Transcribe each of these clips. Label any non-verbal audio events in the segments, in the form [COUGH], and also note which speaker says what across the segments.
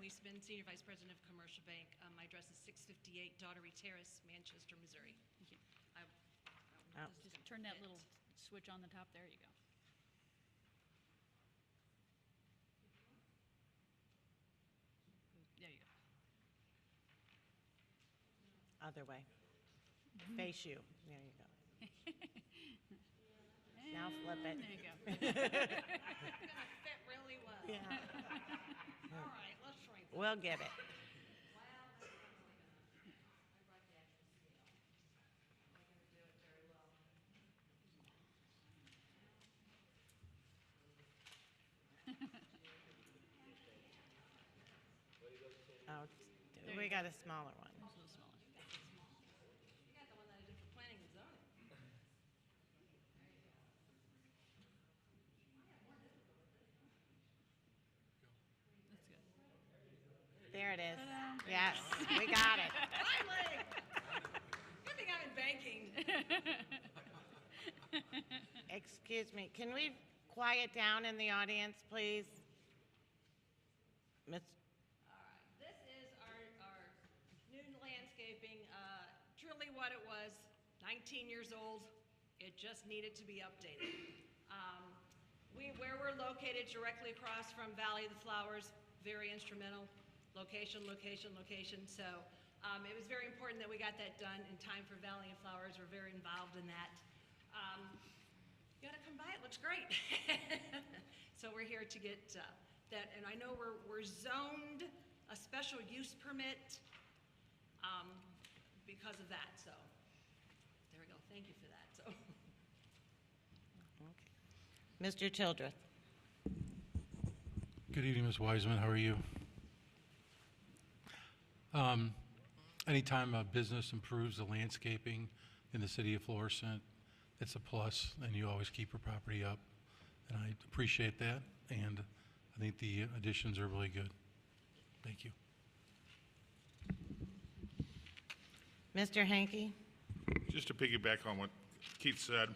Speaker 1: Richmond, Senior Vice President of Commercial Bank. Um, My address is 658 Daughtery Terrace, Manchester, Missouri. I- I don't know if this is gonna
Speaker 2: Just turn that
Speaker 1: fit. [LAUGHS]
Speaker 2: little switch on the top, there you go. There you go.
Speaker 3: Other way. Face you. There you go. Now flip
Speaker 2: And There
Speaker 3: it.
Speaker 2: you
Speaker 3: [LAUGHS]
Speaker 2: go. [LAUGHS]
Speaker 1: It's gonna fit really well.
Speaker 3: Yeah.
Speaker 1: All right, let's try this.
Speaker 3: We'll get it.
Speaker 1: Wow, that's not really gonna- I brought the actual scale. I'm not gonna do it very well.
Speaker 3: Oh, we got a smaller one.
Speaker 2: It's a little smaller.
Speaker 1: You got the one that I did for planning and zoning. [LAUGHS]
Speaker 2: That's good.
Speaker 3: There it is. Yes, we got it.
Speaker 1: Finally! Good thing I'm in banking.
Speaker 3: Excuse me. Can we quiet down in the audience, please? Miss,
Speaker 1: All right, this is our, our new landscaping, uh, truly what it was, 19 years old. It just needed to be updated. Um, We, where we're located directly across from Valley of the Flowers, very instrumental, location, location, location. So um, it was very important that we got that done in time for Valley of Flowers. We're very involved in that. Um, you gotta come by, it looks great. [LAUGHS] So we're here to get uh, that, and I know we're, we're zoned a special use permit um, because of that, so, there we go, thank you for that, so.
Speaker 3: okay. Mr. Childress.
Speaker 4: Good evening, Ms. Wiseman. How are you? Um, Anytime a business improves the landscaping in the city of Florissant, it's a plus, and you always keep your property up. And I appreciate that, and I think the additions are really good. Thank you.
Speaker 3: Mr. Hanky?
Speaker 5: Just to piggyback on what Keith said,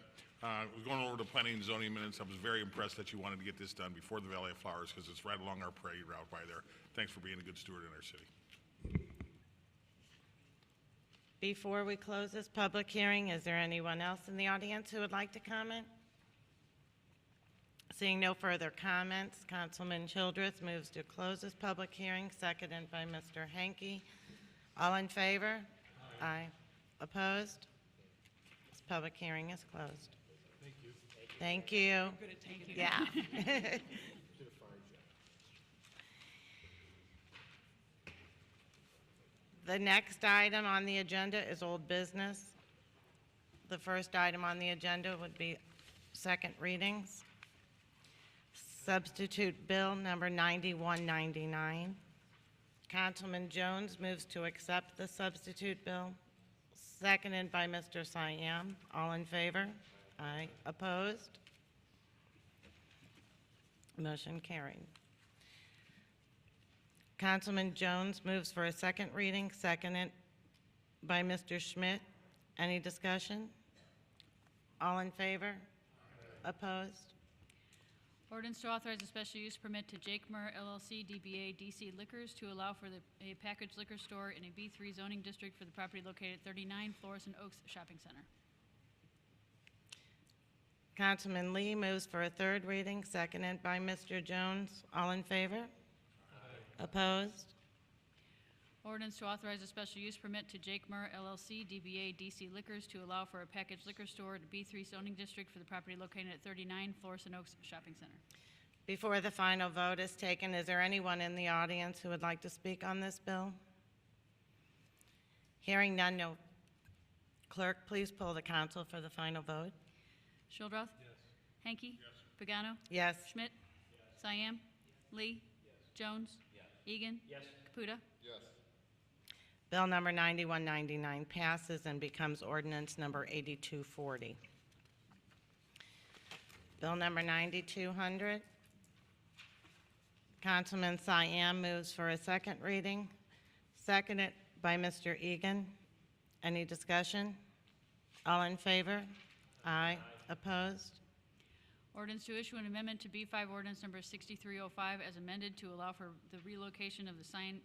Speaker 5: uh, we're going over the planning and zoning minutes. I was very impressed that you wanted to get this done before the Valley of Flowers because it's right along our parade route by there. Thanks for being a good steward in our city.
Speaker 3: Before we close this public hearing, is there anyone else in the audience who would like to comment? Seeing no further comments, Councilman Childress moves to close this public hearing, seconded by Mr. Hanky. All in favor? Aye. Opposed? This public hearing is closed. Thank you. Thank you. Yeah. The next item on the agenda is old business. The first item on the agenda would be second readings. Substitute Bill Number 9199. Councilman Jones moves to accept the substitute bill, seconded by Mr. Siam. All in favor? Aye. Opposed? Motion carried. Councilman Jones moves for a second reading, seconded by Mr. Schmidt. Any discussion? All in favor? Opposed?
Speaker 2: Ordinance to authorize a special use permit to Jake Murr LLC DBA DC Liquors to allow for the, a packaged liquor store in a B3 zoning district for the property located at 39 Florissant Oaks Shopping Center.
Speaker 3: Councilman Lee moves for a third reading, seconded by Mr. Jones. All in favor? Opposed?
Speaker 2: Ordinance to authorize a special use permit to Jake Murr LLC DBA DC Liquors to allow for a packaged liquor store at B3 zoning district for the property located at 39 Florissant Oaks Shopping Center.
Speaker 3: Before the final vote is taken, is there anyone in the audience who would like to speak on this bill? Hearing none, no. Clerk, please pull the council for the final vote.
Speaker 2: Shildroth. Yes. Hanky. Pagano.
Speaker 3: Yes.
Speaker 2: Schmidt. Siam. Lee. Jones. Egan. Caputa.
Speaker 3: Bill number 9199 passes and becomes ordinance number 8240. Bill number 9200, Councilman Siam moves for a second reading, seconded by Mr. Egan. Any discussion? All in favor? Aye. Opposed?
Speaker 2: Ordinance to oh issue an amendment to B5 ordinance number 6305 as amended to allow for the relocation of the sign